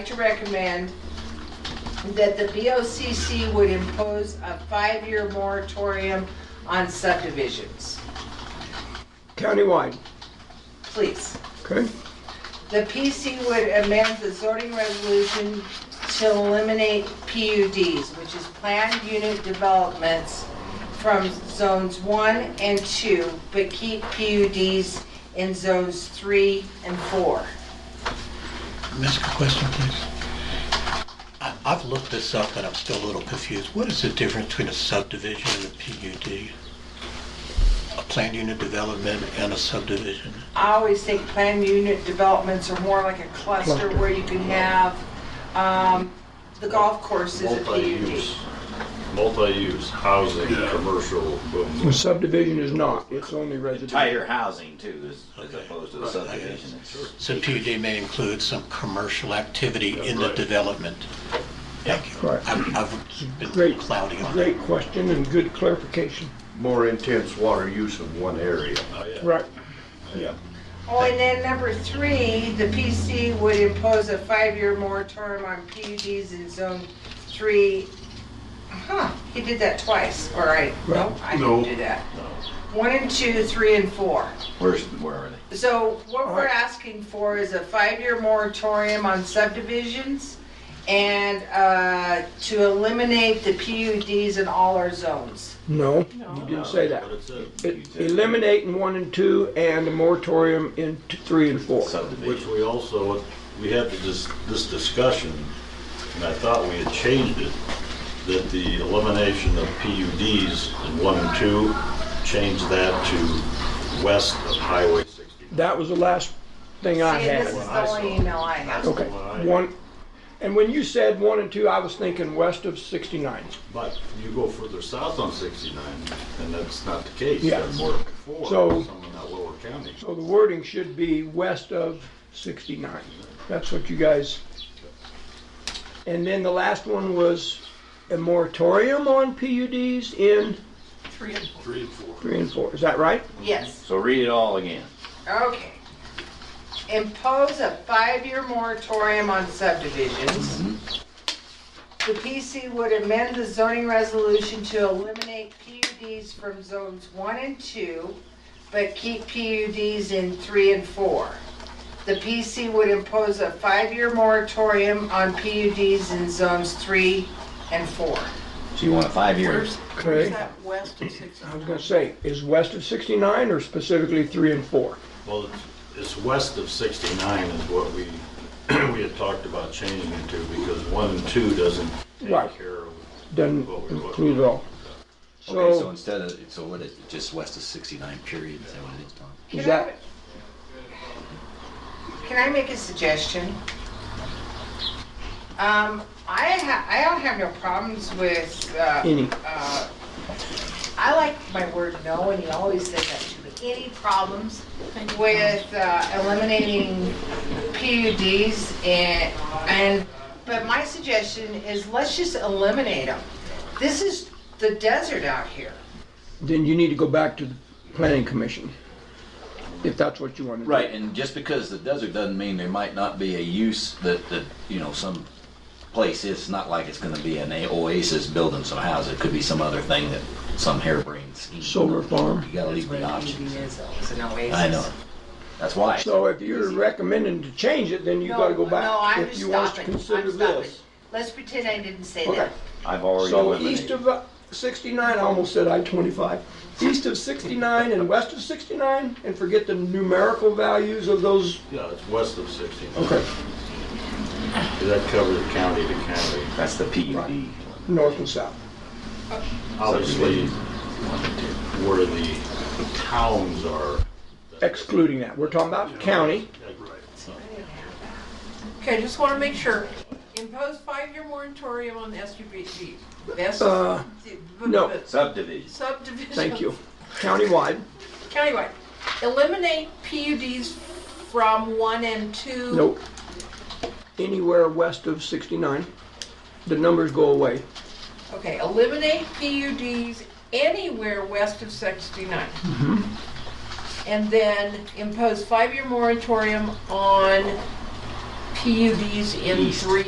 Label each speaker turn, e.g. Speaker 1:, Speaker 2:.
Speaker 1: like to recommend that the BOCC would impose a five-year moratorium on subdivisions.
Speaker 2: countywide,
Speaker 1: Please.
Speaker 2: okay?
Speaker 1: The PC would amend the zoning resolution to eliminate PUDs, which is planned unit developments from zones one and two, but keep PUDs in zones three and four.
Speaker 3: Ask a question, please. I- I've looked this up and I'm still a little confused. What is the difference between a subdivision and a PUD? A planned unit development and a subdivision?
Speaker 1: I always think planned unit developments are more like a cluster
Speaker 2: Cluster.
Speaker 1: where you can have, um, the golf course is a PUD.
Speaker 4: Multi-use, multi-use, housing, commercial,
Speaker 2: The
Speaker 4: boom.
Speaker 2: subdivision is not, it's only residential.
Speaker 5: entire housing too, as, as
Speaker 3: Okay.
Speaker 5: opposed to the
Speaker 3: Right, I guess.
Speaker 5: subdivision. It's-
Speaker 3: So PUD may include some commercial activity in the
Speaker 4: right.
Speaker 3: development. Thank you.
Speaker 2: Right.
Speaker 3: I've I've been
Speaker 2: Great.
Speaker 3: cloudy on that.
Speaker 2: Great question and good clarification.
Speaker 6: more intense water use in one area.
Speaker 4: Oh, yeah.
Speaker 2: Right,
Speaker 1: Oh, and then number three, the PC would impose a five-year moratorium on PUDs in zone three. Huh, he did that twice, all right, no, I didn't
Speaker 6: No.
Speaker 1: do that. One and two, three and four.
Speaker 5: Where's, where are they?
Speaker 1: So what we're
Speaker 2: Alright.
Speaker 1: asking for is a five-year moratorium on subdivisions and uh, to eliminate the PUDs in all our zones.
Speaker 2: no, you didn't say that. It- Eliminating one and two and a moratorium in t- three and four.
Speaker 4: Which
Speaker 5: Subdivision.
Speaker 4: we also, we had this, this discussion, and I thought we had changed it, that the elimination of PUDs in one and two, change that to west of Highway 60.
Speaker 2: That was the last thing I
Speaker 1: See, this is
Speaker 2: had.
Speaker 1: the only email I have.
Speaker 2: Okay, one, and when you said one and two, I was thinking west of 69.
Speaker 4: But you go further south on 69, and that's not the case.
Speaker 2: Yeah.
Speaker 4: That's more before,
Speaker 2: So-
Speaker 4: some in that lower county.
Speaker 2: So the wording should be west of 69. That's what you guys. And then the last one was a moratorium on PUDs in
Speaker 4: Three and four.
Speaker 2: three and four. Is that right?
Speaker 1: Yes.
Speaker 5: So read it all again.
Speaker 1: Okay. Impose a five-year moratorium on subdivisions. The PC would amend the zoning resolution to eliminate PUDs from zones one and two, but keep PUDs in three and four. The PC would impose a five-year moratorium on PUDs in zones three and four.
Speaker 5: So you want five years.
Speaker 2: Okay. I was gonna say, is west of 69 or specifically three and four?
Speaker 4: Well, it's- it's west of 69 is what we, we had talked about changing it to, because one and two doesn't
Speaker 2: Right.
Speaker 4: take care of.
Speaker 2: Doesn't include it all.
Speaker 7: Okay, so
Speaker 2: So
Speaker 7: instead of, so what is, it, just west of 69 period, is that what it is, Tom?
Speaker 2: is that,
Speaker 1: Can I make a suggestion? Um, I ha, I don't have no problems with, uh,
Speaker 2: Any.
Speaker 1: uh, I like my word no, and he always says that to me. Any problems with, uh, eliminating PUDs and, and, but my suggestion is let's just eliminate them. This is the desert out here.
Speaker 2: then you need to go back to the planning commission, if that's what you want to do.
Speaker 5: Right, and just because the desert doesn't mean there might not be a use that, that, you know, some place is, not like it's gonna be an oasis building some house. It could be some other thing that some harebrained scheme.
Speaker 2: Solar farm.
Speaker 5: You gotta leave the options.
Speaker 1: is, though, is an oasis.
Speaker 5: I know. That's why.
Speaker 2: So if you're recommending to change it, then you gotta go back.
Speaker 1: No, I'm
Speaker 2: If
Speaker 1: just
Speaker 2: you want us to
Speaker 1: stopping.
Speaker 2: consider
Speaker 1: I'm stopping.
Speaker 2: this.
Speaker 1: Let's pretend I didn't say
Speaker 2: Okay.
Speaker 1: that.
Speaker 5: I've already
Speaker 2: So east
Speaker 5: eliminated.
Speaker 2: of uh, 69, I almost said I-25. East of 69 and west of 69, and forget the numerical values of those.
Speaker 4: Yeah, it's west of 69.
Speaker 2: Okay,
Speaker 4: That covers county to county.
Speaker 5: That's the E PUD.
Speaker 2: north and south.
Speaker 4: Obviously, where the towns are.
Speaker 2: Excluding that. We're talking about county.
Speaker 8: Okay, just want to make sure. Impose five-year moratorium on SUVs. That's-
Speaker 2: Uh, no.
Speaker 5: Subdivision.
Speaker 8: Subdivision.
Speaker 2: Thank you. Countywide.
Speaker 8: Countywide. Eliminate PUDs from one and two.
Speaker 2: Nope. Anywhere west of 69, the numbers go away.
Speaker 8: Okay, eliminate PUDs anywhere west of 69.
Speaker 2: Mm-hmm.
Speaker 8: And then impose five-year moratorium on PUDs in
Speaker 5: East.
Speaker 8: three